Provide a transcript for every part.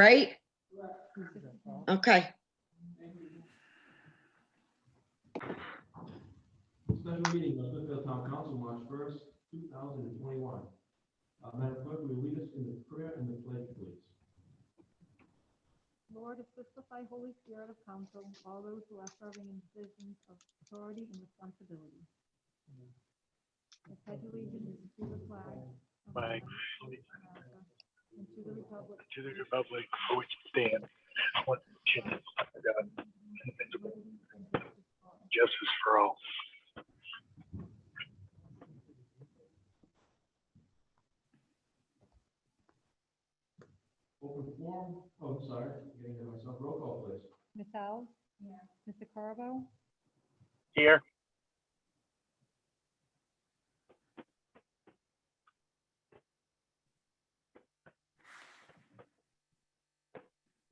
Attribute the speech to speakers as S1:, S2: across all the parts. S1: right? Okay,
S2: Special meeting of Smithfield Town Council, March first, two thousand and twenty-one. Uh, Madam Clerk, will you lead us in the prayer and the pledge, please?
S3: Lord, assist us by Holy Spirit of counsel, all those who are serving in positions of authority and responsibility. I pledge allegiance to the flag. of the
S4: Flag.
S3: United States of America, And to the republic
S4: to the republic for which it stands, one nation, under God, indivisible, with justice for all.
S2: Open forum, oh, I'm sorry, getting ahead of myself, roll call, please.
S5: Ms. Alves? Mr. Carvo?
S4: Here,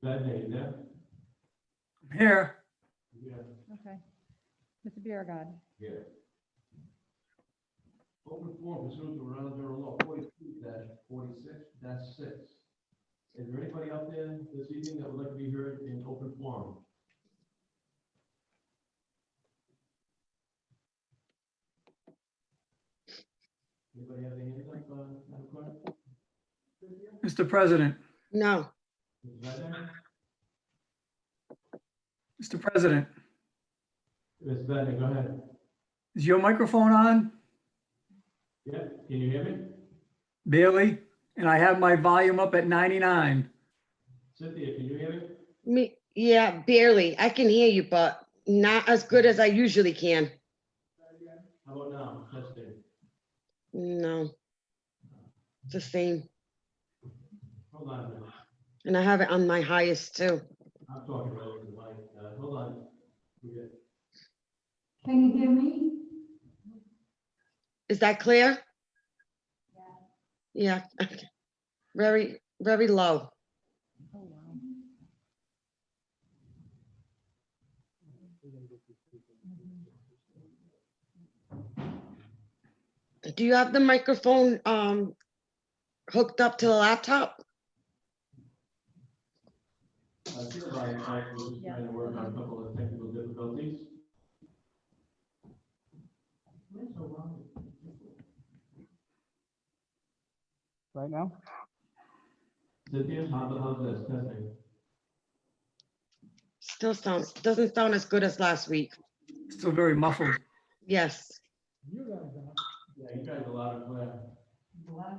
S2: Matt, are you there?
S6: Here,
S2: Yeah.
S5: Okay. Mr. Biragad?
S2: Here. Open forum pursuant to Rhode Island General Law forty-two forty-six six. Is there anybody out there this evening that would like to be heard in open forum? Anybody have their hand up, uh, Madam Clerk?
S6: Mr. President,
S1: no,
S2: Is that there?
S6: Mr. President,
S2: Ms. Vadeney, go ahead.
S6: is your microphone on,
S2: Yeah, can you hear me?
S6: Bailey? And I have my volume up at 99.
S2: Cynthia, can you hear me?
S1: me, yeah, barely. I can hear you, but not as good as I usually can.
S2: How about now? Testing.
S1: No. It's the same,
S2: Hold on a minute.
S1: and I have it on my highest too.
S2: I'm talking right over the mic. Uh, hold on. We get-
S3: Can you hear me?
S1: Is that clear? Yeah, very, very low.
S5: Oh, wow.
S1: Do you have the microphone um hooked up to the laptop?
S2: Uh, sure, Brian, I was just trying to work on a couple of technical difficulties.
S7: right now?
S2: Cynthia, how the hell is this testing?
S1: Still sounds, doesn't sound as good as last week.
S6: Still very muffled.
S1: Yes,
S2: Yeah, you guys are loud and clear.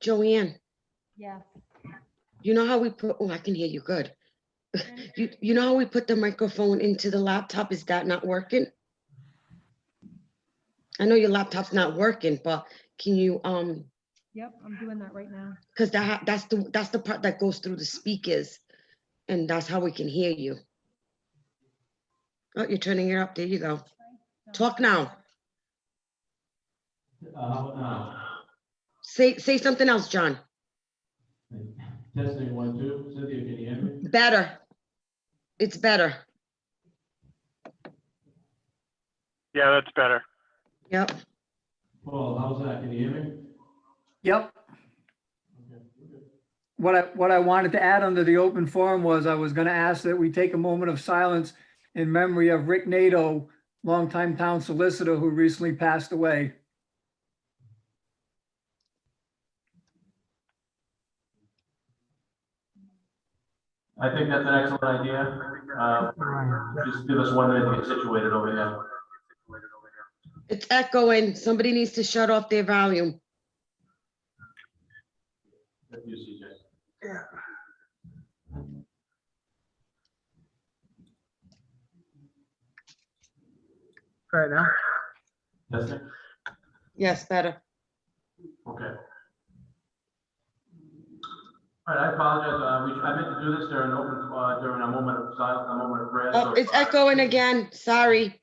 S1: Joanne,
S5: Yes.
S1: you know how we put, oh, I can hear you good. You, you know how we put the microphone into the laptop? Is that not working? I know your laptop's not working, but can you um
S5: Yep, I'm doing that right now.
S1: Because that, ha- that's the, that's the part that goes through the speakers, and that's how we can hear you. Oh, you're turning it up, there you go. Talk now,
S2: Uh, how about now?
S1: say, say something else, John,
S2: uh, Testing one, two. Cynthia, can you hear me?
S1: better. It's better,
S4: yeah, that's better.
S1: yep,
S2: Paul, how's that? Can you hear me?
S6: Yep.
S2: Okay, we're good.
S6: What I, what I wanted to add under the open forum was I was going to ask that we take a moment of silence in memory of Rick Nato, longtime town solicitor who recently passed away.
S8: I think that's an excellent idea. Uh, Just give us one minute to get situated over here.
S1: it's echoing, somebody needs to shut off their volume.
S2: That's you, CJ.
S7: Right now?
S2: Testing?
S1: Yes, better,
S8: Okay. All right, I apologize. Uh, we, I meant to do this during open, uh, during a moment of silence, a moment of prayer.
S1: oh,
S8: so-
S1: it's echoing again, sorry,